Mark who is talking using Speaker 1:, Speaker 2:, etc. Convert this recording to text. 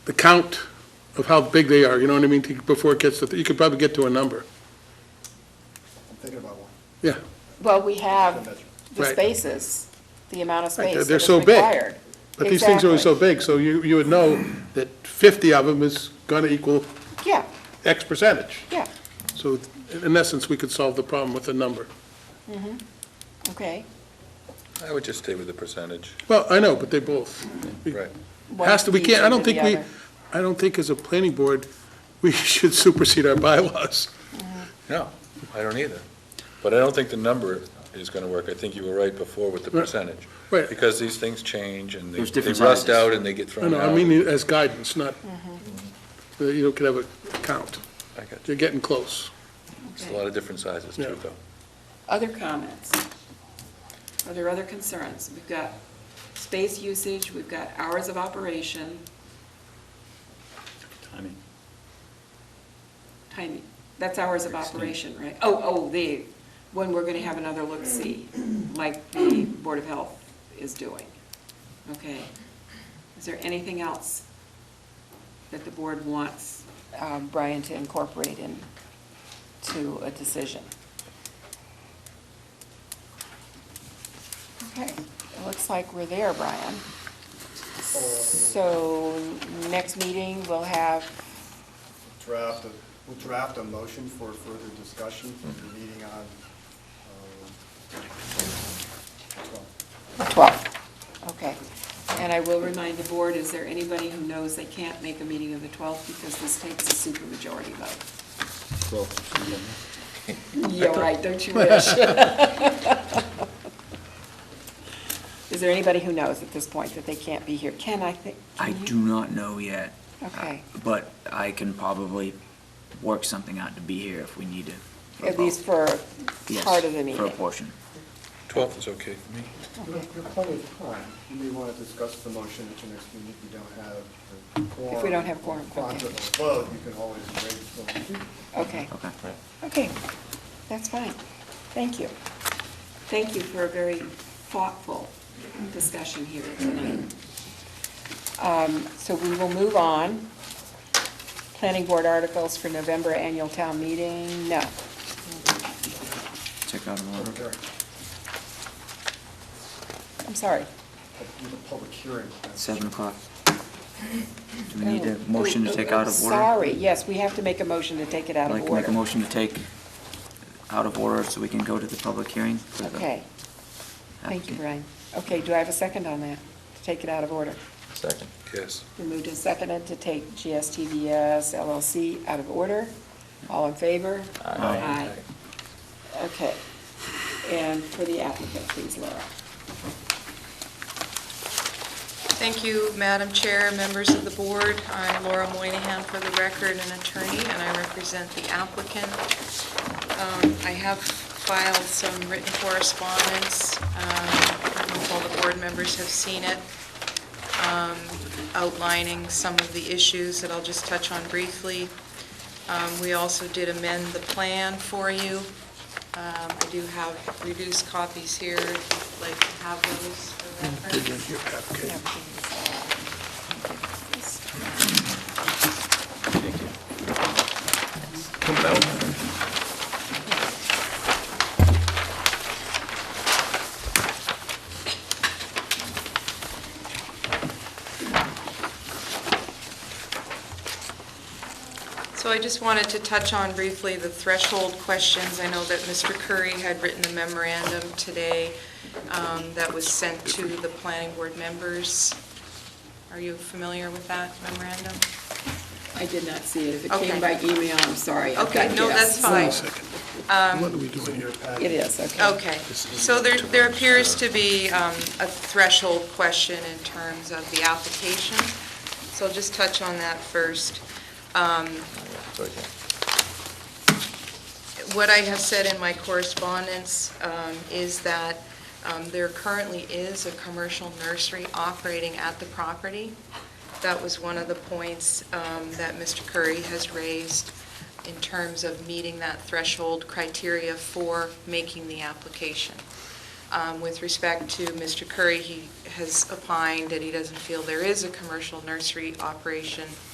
Speaker 1: the count of how big they are, you know what I mean, to- before it gets to, you could probably get to a number.
Speaker 2: I'm thinking about one.
Speaker 1: Yeah,
Speaker 3: Well, we have
Speaker 2: Measure.
Speaker 3: the
Speaker 1: Right.
Speaker 3: spaces, the amount of
Speaker 1: Right,
Speaker 3: space
Speaker 1: they're
Speaker 3: that is
Speaker 1: so big.
Speaker 3: required.
Speaker 1: but these things are always so
Speaker 3: Exactly.
Speaker 1: big, so you, you would know that 50 of them is going to equal
Speaker 3: Yeah,
Speaker 1: X percentage.
Speaker 3: yeah,
Speaker 1: So in essence, we could solve the problem with a number.
Speaker 3: okay.
Speaker 4: I would just stay with the percentage.
Speaker 1: Well, I know, but they both. we-
Speaker 4: Right.
Speaker 3: One
Speaker 1: Has to, we
Speaker 3: piece
Speaker 1: can't, I
Speaker 3: over
Speaker 1: don't
Speaker 3: the
Speaker 1: think we,
Speaker 3: other.
Speaker 1: I don't think as a planning board, we should supersede our bylaws.
Speaker 4: No, I don't either. But I don't think the number is going to work. I think you were right before with the
Speaker 1: Right.
Speaker 4: percentage.
Speaker 1: Right.
Speaker 4: Because these things change and they
Speaker 5: There's
Speaker 4: they
Speaker 5: different
Speaker 4: rust
Speaker 5: sizes.
Speaker 4: out and they get
Speaker 1: I
Speaker 4: thrown
Speaker 1: know,
Speaker 4: out.
Speaker 1: I mean as guidance, not,
Speaker 3: Mm-hmm.
Speaker 1: uh, you know, could have a count.
Speaker 4: I got you.
Speaker 1: You're getting close.
Speaker 4: It's a lot of different sizes
Speaker 1: Yeah.
Speaker 4: too, though.
Speaker 6: Other comments? Are there other concerns? We've got space usage, we've got hours of operation,
Speaker 5: Timing.
Speaker 6: timing. That's hours of operation, right? Oh, oh, the, when we're gonna have another look-see, like the Board of Health is doing. Okay. Is there anything else that the board wants?
Speaker 3: um, Brian to incorporate in to a decision. Okay, it looks like we're there, Brian. So next meeting, we'll have,
Speaker 2: Draft, a- we'll draft a motion for further discussion for the meeting on, um, 12.
Speaker 3: 12, okay. And I will
Speaker 6: We'll
Speaker 3: remind
Speaker 6: remind the board, is there anybody who knows they can't make a meeting of the 12th because this takes a supermajority vote?
Speaker 5: Well,
Speaker 6: You're right, don't you wish? Is there anybody who knows at this point that they can't be here? Ken, I think. can
Speaker 5: I
Speaker 6: you-
Speaker 5: do not know yet.
Speaker 3: Okay.
Speaker 5: Uh, But I can probably work something out to be here if we need to. for
Speaker 3: At least
Speaker 5: both.
Speaker 3: for
Speaker 5: Yes,
Speaker 3: part of the
Speaker 5: For a
Speaker 3: meeting.
Speaker 5: portion.
Speaker 4: 12th is okay for me.
Speaker 2: You have you have plenty of time. You may want to discuss the motion at your next meeting if you don't have the quorum.
Speaker 3: If we don't have quorum,
Speaker 2: Quorum
Speaker 3: okay.
Speaker 2: doesn't vote, you can always raise the
Speaker 3: Okay,
Speaker 5: Okay.
Speaker 3: okay, that's fine. Thank you.
Speaker 6: Thank you for a very thoughtful discussion here tonight.
Speaker 3: Um, So we will move on. Planning board articles for November annual town meeting, no.
Speaker 5: Check out a little.
Speaker 2: Okay.
Speaker 3: I'm sorry.
Speaker 2: Do the public hearing.
Speaker 5: Seven o'clock. Do we need a motion to take out of order?
Speaker 3: Oh, Sorry, yes, we have to make a motion to take it out
Speaker 5: I'd like
Speaker 3: of
Speaker 5: to make a
Speaker 3: order.
Speaker 5: motion to take out of order so we can go to the public hearing. for the
Speaker 3: Okay, thank you,
Speaker 5: applicant.
Speaker 3: Brian. Okay, do I have a second on that, to take it out of order?
Speaker 4: Second. Yes.
Speaker 3: We moved and seconded to take GSTVS LLC out of order. All in favor?
Speaker 6: Aye.
Speaker 3: Okay. And for the applicant, please, Laura.
Speaker 7: Thank you, Madam Chair, members of the board. I'm Laura Moynihan for the record, an attorney, and I represent the applicant. Um, I have filed some written correspondence. Um, I don't know if all the board members have seen it, um, outlining some of the issues that I'll just touch on briefly. Um, We also did amend the plan for you. Um, I do have reduced copies here, if you'd like to have those for reference. So I just wanted to touch on briefly the threshold questions. I know that Mr. Curry had written a memorandum today um, that was sent to the planning board members. Are you familiar with that memorandum?
Speaker 6: I did not see it. If it
Speaker 7: Okay.
Speaker 6: came by email, I'm sorry. I've
Speaker 7: Okay,
Speaker 6: got
Speaker 7: no,
Speaker 6: guests.
Speaker 7: that's fine.
Speaker 1: What are we doing here?
Speaker 3: It is, okay.
Speaker 7: Okay, so there, there appears to be um, a threshold question in terms of the application, so I'll just touch on that first. Um, What I have said in my correspondence um, is that um, there currently is a commercial nursery operating at the property. That was one of the points um, that Mr. Curry has raised in terms of meeting that threshold criteria for making the application. Um, With respect to Mr. Curry, he has opined that he doesn't feel there is a commercial nursery operation